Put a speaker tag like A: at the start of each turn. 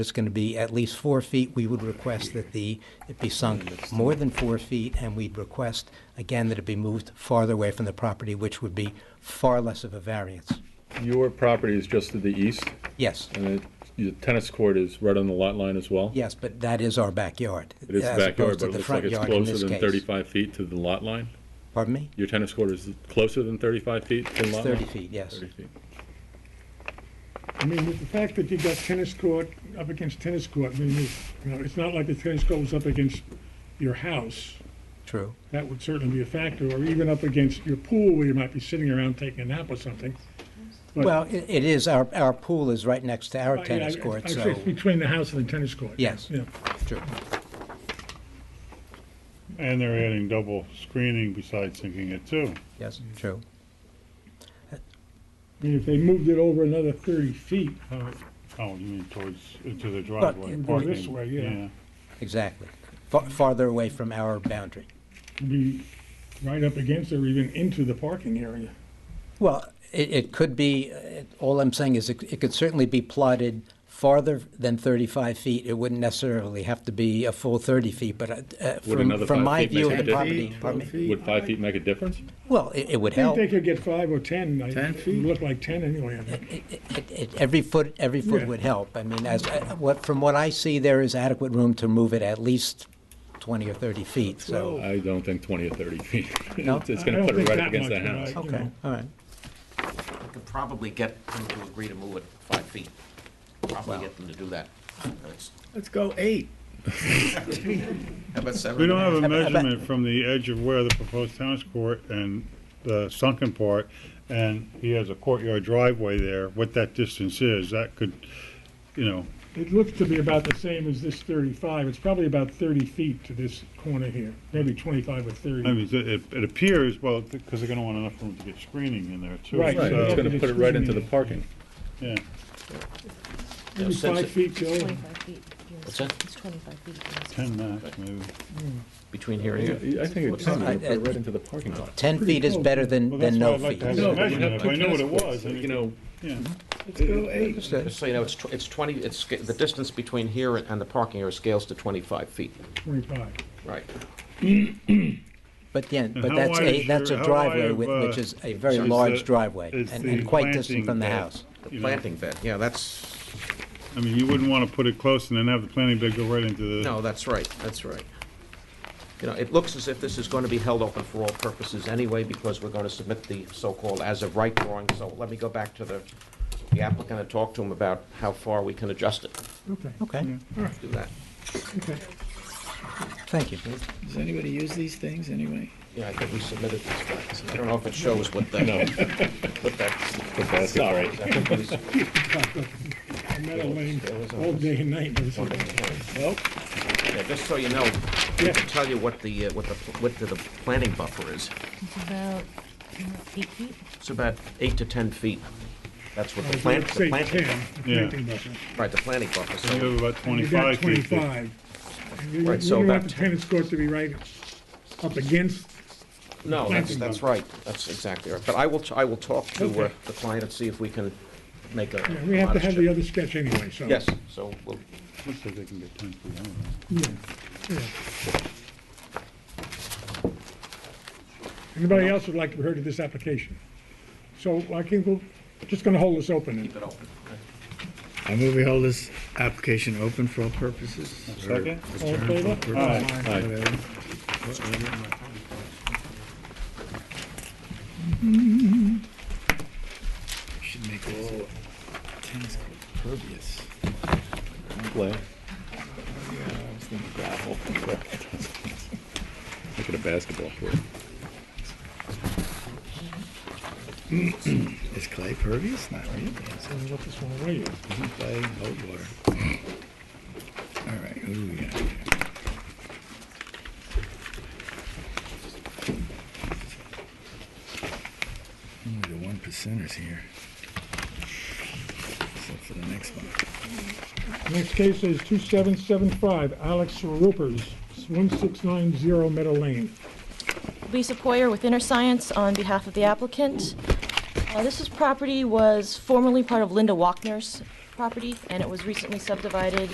A: it's going to be at least four feet, we would request that the, it be sunk more than four feet, and we'd request, again, that it be moved farther away from the property, which would be far less of a variance.
B: Your property is just to the east,
A: Yes,
B: and it- your tennis court is right on the lot line as well?
A: yes, but that is our backyard.
B: It is
A: as
B: backyard,
A: opposed to
B: but it
A: the
B: looks like
A: front
B: it's
A: yard in
B: closer
A: this
B: than
A: case.
B: 35 feet to the lot line?
A: Pardon me?
B: Your tennis court is closer than 35 feet to the
A: It's
B: lot line?
A: 30 feet, yes.
B: 30 feet.
C: I mean, with the fact that you got tennis court up against tennis court, I mean, it's, you know, it's not like the tennis court was up against your house.
A: True.
C: That would certainly be a factor, or even up against your pool where you might be sitting around taking a nap or something. But-
A: Well, i- it is, our, our pool is right next to our
C: Uh, yeah,
A: tennis
C: I- I-
A: court,
C: I'd
A: so.
C: say it's Between the house and the tennis court.
A: Yes.
C: Yeah.
A: True.
D: And they're adding double screening besides sinking it too.
A: Yes, true.
C: I mean, if they moved it over another thirty feet, uh,
D: Oh, you mean towards, into the driveway,
A: it
C: would go this
D: parking,
C: way, yeah.
A: Exactly. Fa- Farther away from our boundary.
C: it'd be right up against or even into the parking area.
A: Well, it, it could be, uh, all I'm saying is it, it could certainly be plotted farther than 35 feet. It wouldn't necessarily have to be a full 30 feet, but uh, uh, from,
B: another
A: from
B: five
A: my
B: feet
A: view of
B: make
A: the
B: a difference?
A: property, pardon me.
B: Would five feet make a difference?
A: well, it, it would
C: I think
A: help.
C: they could get five or ten. I-
E: 10
C: it
E: feet?
C: would Look like ten anyway, I think.
A: It- it- it- Every foot, every foot
C: Yeah.
A: would help. I mean, as, uh, what, from what I see, there is adequate room to move it at least 20 or 30 feet, so.
B: I don't think 20 or 30 feet.
A: No?
B: It's- It's
C: Oh. I
B: gonna
C: don't
B: put it
C: think
B: right
C: that
B: up against the
C: much,
B: house.
C: right. you
A: Okay,
C: know.
A: all right.
E: We could probably get them to agree to move it five feet. Probably get them to do that. Let's-
F: Let's go eight.
E: How about seven?
D: We don't have a
A: Ab- ab-
D: measurement from the edge of where the proposed tennis court and the sunken part, and he has a courtyard driveway there, what that distance is, that could, you know,
C: It looks to be about the same as this 35. It's probably about 30 feet to this corner here, maybe 25 or
D: I
C: 30.
D: mean, it, it- it appears, well, because they're gonna want enough room to get screening in there too.
C: Right.
B: Right,
D: so,
B: it's gonna put it right into the parking.
D: Yeah,
C: Maybe
E: since
C: five
E: it-
C: feet, Joe.
G: Twenty-five feet. yes.
E: What's that?
G: It's twenty-five feet. yes.
D: ten max, maybe.
E: Between here and here.
B: I think it's gonna put it right into the parking lot.
A: 10 feet is better than,
D: Well,
A: than
D: that's
A: no
D: why I'd like
A: feet.
D: to have
B: No, but
D: a
B: you
D: measurement,
B: have
D: if I
B: two
D: knew what it
B: tennis
D: was,
B: courts,
D: and
B: You know,
D: yeah.
F: Let's go eight.
A: Understood.
E: Just so you know, it's, tw- it's twenty, it's, sca- the distance between here and and the parking area scales to twenty-five feet.
C: 25.
E: Right.
A: But again,
D: And
A: but
D: how
A: that's
D: wide
A: a,
D: is
A: that's a
D: your- how
A: driveway,
D: wide of,
A: wi- which
D: uh,
A: is a very
D: is
A: large
D: the-
A: driveway,
D: is
A: and
D: the
A: and quite distant
D: planting
A: from the
D: bed?
A: house.
E: The
D: You know-
E: planting bed, yeah, that's,
D: I mean, you wouldn't want to put it close and then have the planning board go right into the,
E: no, that's right, that's right. You know, it looks as if this is going to be held open for all purposes anyway, because we're going to submit the so-called as-of-right drawing, so let me go back to the the applicant and talk to him about how far we can adjust it,
C: Okay,
A: Okay,
E: do that.
C: okay.
A: thank you.
F: Does anybody use these things anyway?
E: Yeah, I think we submitted this back. I don't know if it shows what that, what that.
B: That's all right.
E: Sorry.
C: I met Elaine all day and night. It was like,
E: Yeah, just so you know, we can tell you what the, uh, what the, what the the planting buffer is.
G: It's about mm, eight feet.
E: It's about eight to 10 feet. That's what the
C: I'd
E: plant, the
C: Say
E: planting,
C: 10, the
D: Yeah.
C: planting buffer.
E: right, the planting buffer.
D: you
E: So
D: have about
C: You got
D: twenty-five feet.
C: 25. And You you
E: Right, so
C: don't
E: about
C: want the tennis court to be right up against,
E: No, that's,
C: planting
E: that's right. That's exactly right. But I will, t- I will talk to uh,
C: Okay.
E: the client and see if we can make a.
C: Yeah, we have to
E: modest
C: have the
E: change.
C: other sketch anyway, so.
E: Yes, so we'll,
D: Looks like they can get ten feet, I don't know.
C: Yeah, yeah. Anybody else would like to be heard of this application? So I think we're just going to hold this open.
E: keep it open.
F: I move we hold this application open for all purposes.
D: Second?
C: All in favor?
F: Whatever. Should make all tennis court pervious.
B: play,
F: I was thinking gravel.
B: make it a basketball court.
F: Is clay pervious? Not really.
C: Tell me what this one away is.
F: Isn't clay hot water? All right, who do we got here? Only the one percenters here. Except for the next one.
C: Next case is 2775 Alex Rupers, 1690 Meadow Lane.
G: Lisa Poyer with Inner Science on behalf of the applicant. Uh, This is property was formerly part of Linda Walkner's property, and it was recently subdivided